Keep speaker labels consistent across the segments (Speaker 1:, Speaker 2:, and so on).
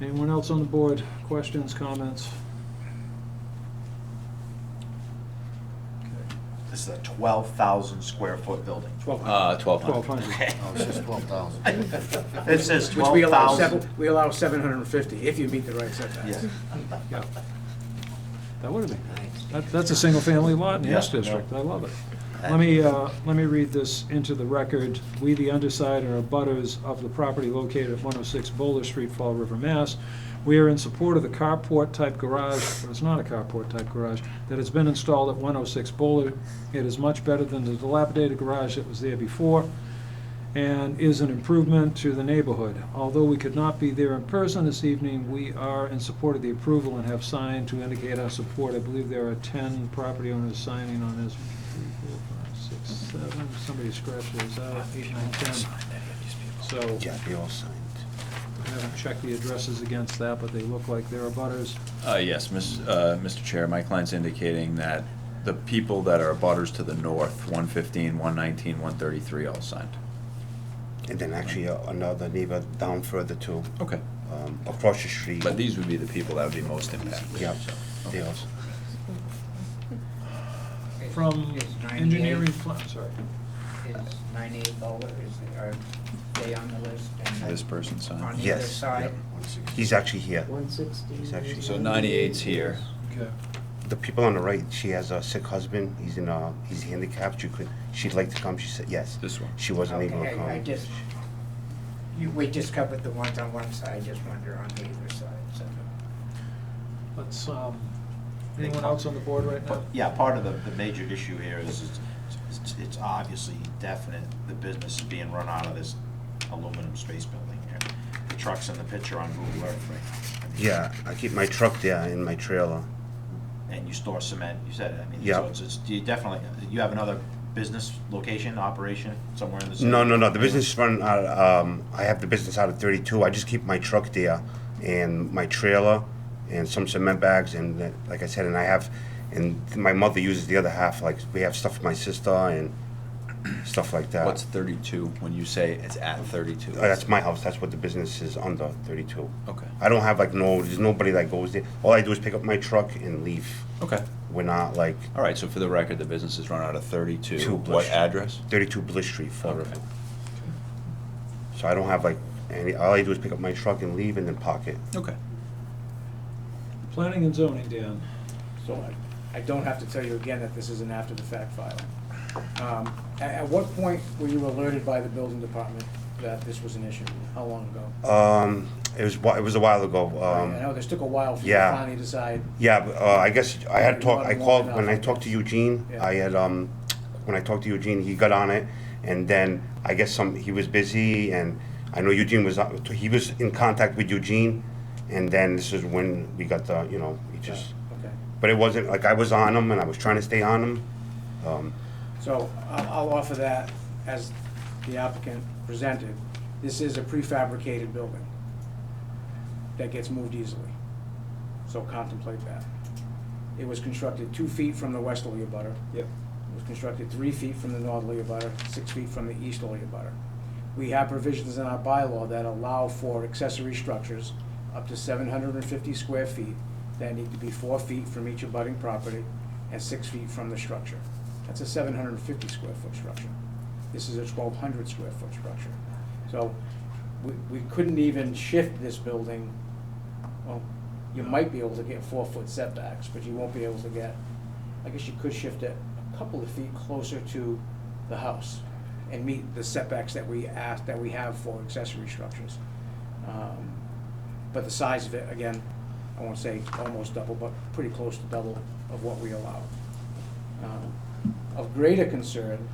Speaker 1: Anyone else on the board? Questions, comments?
Speaker 2: This is a 12,000 square foot building.
Speaker 1: Twelve
Speaker 3: Uh, twelve
Speaker 1: Twelve
Speaker 3: hundred.
Speaker 1: hundred.
Speaker 2: Okay.
Speaker 4: Oh, it's just twelve thousand.
Speaker 2: It says
Speaker 4: Which we allow
Speaker 2: 12,000.
Speaker 4: seven, we allow seven hundred and fifty, if you meet the right setbacks.
Speaker 2: Yeah.
Speaker 1: Yeah. That would have been, that, that's a single-family lot in the
Speaker 2: Yeah,
Speaker 1: S District, I love it.
Speaker 2: Uh,
Speaker 1: Let me, uh, let me read this into the record. We, the underside, are abutters of the property located at 106 Boulder Street, Fall River, Mass. We are in support of the carport-type garage, but it's not a carport-type garage, that has been installed at 106 Boulder. It is much better than the dilapidated garage that was there before and is an improvement to the neighborhood. Although we could not be there in person this evening, we are in support of the approval and have signed to indicate our support. I believe there are 10 property owners signing on this. Three, four, five, six, seven. Somebody scratched those out, eight, nine, 10. So
Speaker 3: Yeah, they all signed.
Speaker 1: I haven't checked the addresses against that, but they look like they're abutters.
Speaker 3: Uh, yes, Miss, uh, Mr. Chair, my client's indicating that the people that are abutters to the north, one fifteen, one nineteen, one thirty-three, all signed.
Speaker 5: And then actually uh, another neighbor down further too,
Speaker 3: Okay.
Speaker 5: um, across the street.
Speaker 3: But these would be the people that would be most impacted.
Speaker 5: Yeah,
Speaker 3: so.
Speaker 5: they also.
Speaker 1: From
Speaker 6: Is 98
Speaker 1: engineering, fl- I'm sorry.
Speaker 6: Is ninety-eight Boulder, is, are they on the list? And
Speaker 3: This person
Speaker 6: On
Speaker 3: signed.
Speaker 6: either
Speaker 5: uh, Yes,
Speaker 6: side?
Speaker 5: He's actually here.
Speaker 7: One sixty.
Speaker 5: He's actually-
Speaker 3: So 98's here.
Speaker 1: Okay.
Speaker 5: The people on the right, she has a sick husband. He's in a, he's handicapped. She could, she'd like to come. She said yes.
Speaker 3: This one.
Speaker 5: She wasn't able to
Speaker 6: Okay, I- I
Speaker 5: come.
Speaker 6: just, you, we just covered the ones on one side, just wonder on the other side, so.
Speaker 1: Let's, um, anyone else on the board right now?
Speaker 2: But, Yeah, part of the, the major issue here is, is it's- it's obviously definite, the business is being run out of this aluminum space building here. The truck's in the picture on Google Earth right now. I mean,
Speaker 5: Yeah, I keep my truck there in my trailer.
Speaker 2: And you store cement, you said, it. I mean,
Speaker 5: Yeah.
Speaker 2: so it's, it's, you definitely, you have another business location, operation somewhere in the city?
Speaker 5: No, no, no. The business run out. Um, I have the business out of 32. I just keep my truck there and my trailer and some cement bags and that- like I said, and I have, and my mother uses the other half. Like we have stuff for my sister and stuff like that.
Speaker 3: What's thirty-two, when you say it's at thirty-two?
Speaker 5: Uh, that's my house. That's what the business is under 32.
Speaker 3: Okay,
Speaker 5: I don't have like no. There's nobody that goes there. All I do is pick up my truck and leave.
Speaker 3: okay.
Speaker 5: We're not like
Speaker 3: All right, so for the record, the business is run out of thirty-two.
Speaker 5: Two
Speaker 3: What
Speaker 5: Bush.
Speaker 3: address?
Speaker 5: 32 Bliss Street, Fall
Speaker 3: Okay.
Speaker 5: River. So I don't have like any. All I do is pick up my truck and leave and then park it.
Speaker 3: Okay.
Speaker 1: Planning and zoning, Dan.
Speaker 4: So I, I don't have to tell you again that this is an after-the-fact filing. Um, at, at what point were you alerted by the building department that this was an issue? How long ago?
Speaker 5: Um, it was whi- it was a while ago.
Speaker 4: I know
Speaker 5: Um,
Speaker 4: this took a while for you to
Speaker 5: yeah.
Speaker 4: finally decide.
Speaker 5: yeah, but, uh, I guess I had talked. I called when I talked to Eugene.
Speaker 4: Yeah.
Speaker 5: I had um, when I talked to Eugene, he got on it, and then I guess some he was busy, and I know Eugene was not- he was in contact with Eugene, and then this is when we got the you know he just.
Speaker 4: Okay.
Speaker 5: But it wasn't like I was on him, and I was trying to stay on him. Um,
Speaker 4: So I'll, I'll offer that as the applicant presented. This is a prefabricated building that gets moved easily, so contemplate that. It was constructed two feet from the westerly abutter.
Speaker 1: Yep.
Speaker 4: It was constructed three feet from the northerly abutter, six feet from the easterly abutter. We have provisions in our bylaw that allow for accessory structures up to seven hundred and fifty square feet that need to be four feet from each abutting property and six feet from the structure. That's a seven hundred and fifty square foot structure. This is a twelve hundred square foot structure. So we, we couldn't even shift this building. Well, you might be able to get four foot setbacks, but you won't be able to get I guess you could shift it a couple of feet closer to the house and meet the setbacks that we ask, that we have for accessory structures. Um, But the size of it, again, I won't say almost double, but pretty close to double of what we allow. Um, Of greater concern,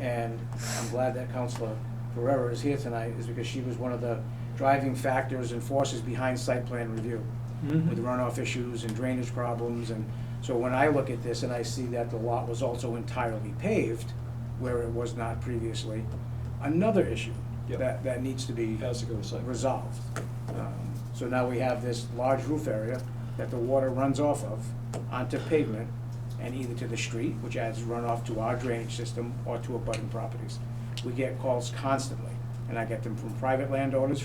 Speaker 4: and I'm glad that Counselor Pereira is here tonight, is because she was one of the driving factors and forces behind site plan review
Speaker 1: Mm-hmm.
Speaker 4: with runoff issues and drainage problems, and so when I look at this and I see that the lot was also entirely paved, where it was not previously, another issue
Speaker 1: Yep.
Speaker 4: that, that needs to be
Speaker 1: Has to go to site.
Speaker 4: resolved. Um, So now we have this large roof area that the water runs off of onto pavement and either to the street, which adds runoff to our drainage system, or to abutting properties. We get calls constantly, and I get them from private landowners,